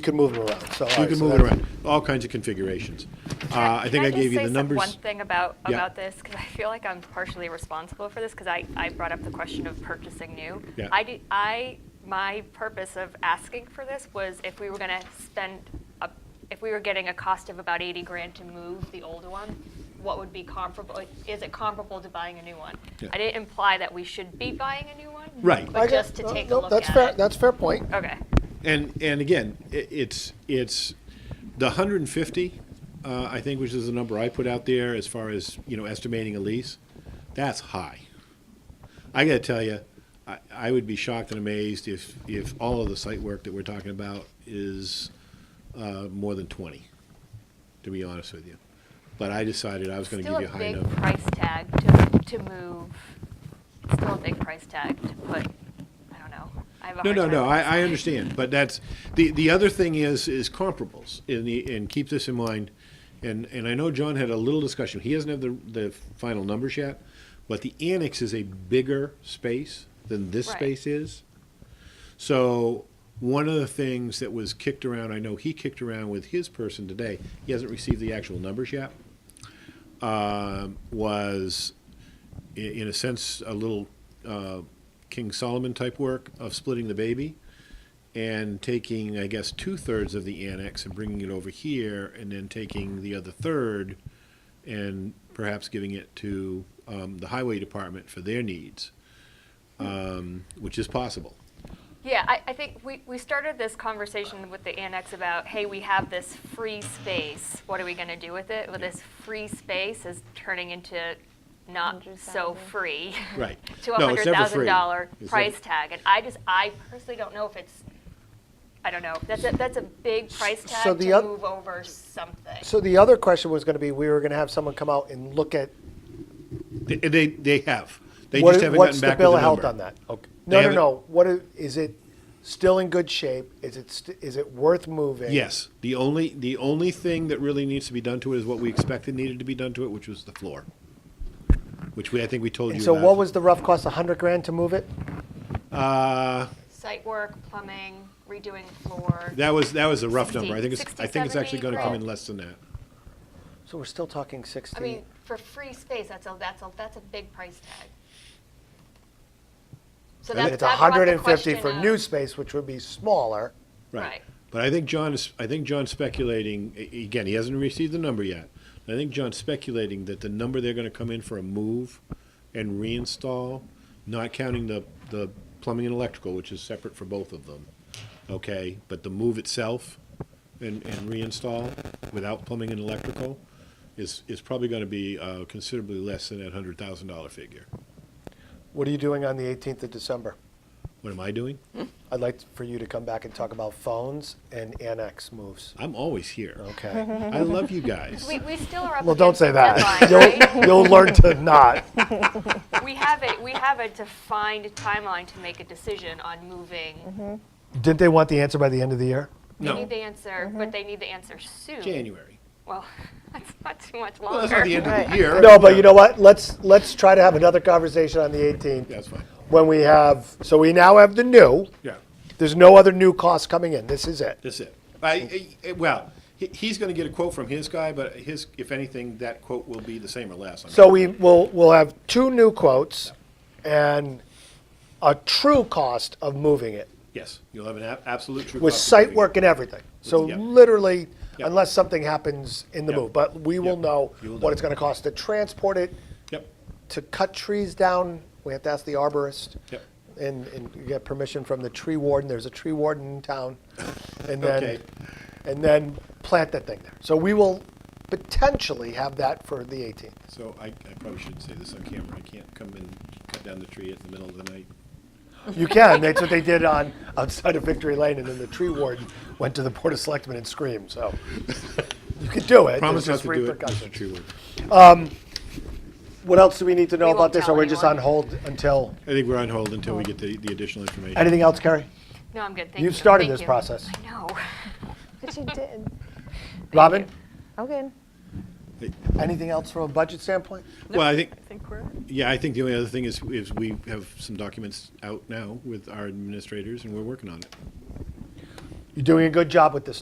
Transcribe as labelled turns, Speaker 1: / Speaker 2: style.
Speaker 1: can move them around, so. all
Speaker 2: You
Speaker 1: right,
Speaker 2: can
Speaker 1: so
Speaker 2: move it
Speaker 1: that's-
Speaker 2: around, all kinds of configurations. Uh, I
Speaker 3: Can
Speaker 2: think I
Speaker 3: just
Speaker 2: gave you
Speaker 3: say
Speaker 2: the
Speaker 3: some-
Speaker 2: numbers.
Speaker 3: One thing about,
Speaker 2: Yeah.
Speaker 3: about this, because I feel like I'm partially responsible for this, because I, I brought up the question of purchasing new.
Speaker 2: Yeah.
Speaker 3: I did, I, my purpose of asking for this was if we were gonna spend, a- if we were getting a cost of about eighty grand to move the old one, what would be comparable, like, is it comparable to buying a new one?
Speaker 2: Yeah.
Speaker 3: I didn't imply that we should be buying a new one.
Speaker 2: Right.
Speaker 1: I
Speaker 3: But
Speaker 1: get-
Speaker 3: just to
Speaker 1: no,
Speaker 3: take a
Speaker 1: no,
Speaker 3: look
Speaker 1: That's
Speaker 3: at
Speaker 1: fair,
Speaker 3: it.
Speaker 1: that's fair point.
Speaker 3: Okay,
Speaker 2: And, and again, i- it's, it's, the hundred and fifty, uh, I think, which is the number I put out there as far as, you know, estimating a lease, that's high. I gotta tell you, I, I would be shocked and amazed if, if all of the site work that we're talking about is, uh, more than twenty, to be honest with you. But I decided I was gonna
Speaker 3: still
Speaker 2: give you
Speaker 3: a
Speaker 2: a high
Speaker 3: big
Speaker 2: number.
Speaker 3: price tag to, to move, still a big price tag to put, I don't know. I have
Speaker 2: No,
Speaker 3: a hard
Speaker 2: no,
Speaker 3: time
Speaker 2: no,
Speaker 3: with
Speaker 2: I, I understand, but that's, the, the other thing is, is comparables, and the, and keep this in mind. And, and I know John had a little discussion, he doesn't have the, the final numbers yet, but the annex is a bigger space than this
Speaker 3: Right.
Speaker 2: space is. So, one of the things that was kicked around, I know he kicked around with his person today, he hasn't received the actual numbers yet, um, was, i- in a sense, a little uh, King Solomon type work of splitting the baby and taking, I guess, two thirds of the annex and bringing it over here, and then taking the other third and perhaps giving it to um, the highway department for their needs, um, which is possible.
Speaker 3: Yeah, I, I think we, we started this conversation with the annex about, hey, we have this free space. What are we going to do with it? Well, this free space is turning into not so
Speaker 4: 100,000.
Speaker 3: free.
Speaker 2: Right.
Speaker 3: to a
Speaker 2: No, it's never
Speaker 3: hundred
Speaker 2: free.
Speaker 3: thousand dollar
Speaker 2: It's
Speaker 3: price
Speaker 2: never-
Speaker 3: tag. And I just, I personally don't know if it's, I don't know. That's a, that's a big price tag
Speaker 1: So the
Speaker 3: to
Speaker 1: oth-
Speaker 3: move over something.
Speaker 1: So the other question was gonna be, we were gonna have someone come out and look at
Speaker 2: They, they, they have. They
Speaker 1: What
Speaker 2: just
Speaker 1: i-
Speaker 2: haven't
Speaker 1: what's
Speaker 2: gotten
Speaker 1: the
Speaker 2: back with
Speaker 1: bill
Speaker 2: the
Speaker 1: of health
Speaker 2: number.
Speaker 1: on that? Okay. No,
Speaker 2: They
Speaker 1: no,
Speaker 2: haven't-
Speaker 1: no. What is, is it still in good shape? Is it st- is it worth moving?
Speaker 2: Yes, the only, the only thing that really needs to be done to it is what we expected needed to be done to it, which was the floor. Which we, I think we told you
Speaker 1: And
Speaker 2: about.
Speaker 1: so, what was the rough cost? A hundred grand to move it?
Speaker 2: Uh,
Speaker 3: Site work, plumbing, redoing floor.
Speaker 2: That was, that was a rough number. I think it's,
Speaker 3: 60,
Speaker 2: I think it's actually
Speaker 3: 70
Speaker 2: gonna come in
Speaker 3: grand.
Speaker 2: less than that.
Speaker 1: So we're still talking sixty.
Speaker 3: I mean, for free space, that's a, that's a, that's a big price tag. So
Speaker 2: And
Speaker 3: that-
Speaker 1: it's
Speaker 3: that brought the
Speaker 1: hundred and fifty
Speaker 3: question
Speaker 1: for
Speaker 3: of-
Speaker 1: new space, which would be smaller.
Speaker 2: Right.
Speaker 3: Right.
Speaker 2: But I think John is, I think John's speculating, a- again, he hasn't received the number yet. I think John's speculating that the number they're gonna come in for a move and reinstall, not counting the, the plumbing and electrical, which is separate for both of them, okay? But the move itself and, and reinstall without plumbing and electrical is, is probably gonna be uh, considerably less than that hundred thousand dollar figure.
Speaker 1: What are you doing on the eighteenth of December?
Speaker 2: What am I doing?
Speaker 1: I'd like for you to come back and talk about phones and annex moves.
Speaker 2: I'm always here.
Speaker 3: Mm-hmm.
Speaker 1: Okay.
Speaker 2: I love you guys.
Speaker 3: We, we still are up
Speaker 1: well, don't
Speaker 3: against
Speaker 1: say
Speaker 3: the
Speaker 1: that.
Speaker 3: deadline, right?
Speaker 1: You'll, you'll learn to not.
Speaker 3: We have a, we have a defined timeline to make a decision on moving.
Speaker 1: Didn't they want the answer by the end of the year?
Speaker 2: Mm-hmm.
Speaker 3: They
Speaker 2: No. Mm-hmm.
Speaker 3: need the answer, but they need the answer soon.
Speaker 2: January.
Speaker 3: Well, that's not too much
Speaker 2: Well, that's not the end
Speaker 3: longer.
Speaker 2: of the year.
Speaker 1: No, but you know what? Let's let's try to have another conversation on the eighteenth.
Speaker 2: That's fine.
Speaker 1: when we have, so we now have the new.
Speaker 2: Yeah,
Speaker 1: There's no other new costs coming in. This is it.
Speaker 2: that's it. I, I- well, he- he's going to get a quote from his guy, but his, if anything, that quote will be the same or less. I mean,
Speaker 1: So we will, we'll have two new quotes and a true cost of moving it
Speaker 2: Yes, you'll have an ab- absolute true.
Speaker 1: with
Speaker 2: cost of
Speaker 1: site
Speaker 2: moving
Speaker 1: work
Speaker 2: it.
Speaker 1: and everything. So
Speaker 2: Yep.
Speaker 1: literally,
Speaker 2: Yep.
Speaker 1: unless something happens in the
Speaker 2: Yep.
Speaker 1: move, but we will
Speaker 2: Yep.
Speaker 1: know
Speaker 2: You will
Speaker 1: what
Speaker 2: know.
Speaker 1: it's gonna cost to transport it,
Speaker 2: Yep,
Speaker 1: to cut trees down. We have to ask the arborist.
Speaker 2: Yep.
Speaker 1: And, and get permission from the tree warden. There's a tree warden in town. And then
Speaker 2: Okay.
Speaker 1: and then plant that thing there. So we will potentially have that for the 18th.
Speaker 2: so I, I probably shouldn't say this on camera. I can't come and cut down the tree at the middle of the night.
Speaker 1: You can. That's what they did on outside of Victory Lane, and then the tree warden went to the board of selectmen and screamed. So you could do it.
Speaker 2: Promise
Speaker 1: There's just
Speaker 2: not to do it, Mr.
Speaker 1: repercussions.
Speaker 2: Treewood.
Speaker 1: What else do we need to know
Speaker 3: We
Speaker 1: about
Speaker 3: won't
Speaker 1: this? Or
Speaker 3: tell
Speaker 1: we're just on
Speaker 3: anyone.
Speaker 1: hold until
Speaker 2: I think we're on hold until we get the, the additional information.
Speaker 1: anything else, Carrie?
Speaker 3: No, I'm good, thank you.
Speaker 1: You've started
Speaker 3: Thank
Speaker 1: this
Speaker 3: you.
Speaker 1: process.
Speaker 3: I know.
Speaker 4: But you did.
Speaker 1: Robin,
Speaker 4: Okay.
Speaker 1: anything else from a budget standpoint?
Speaker 2: Well, I think,
Speaker 5: I think we're.
Speaker 2: yeah, I think the only other thing is, is we have some documents out now with our administrators, and we're working on it.
Speaker 1: You're doing a good job with this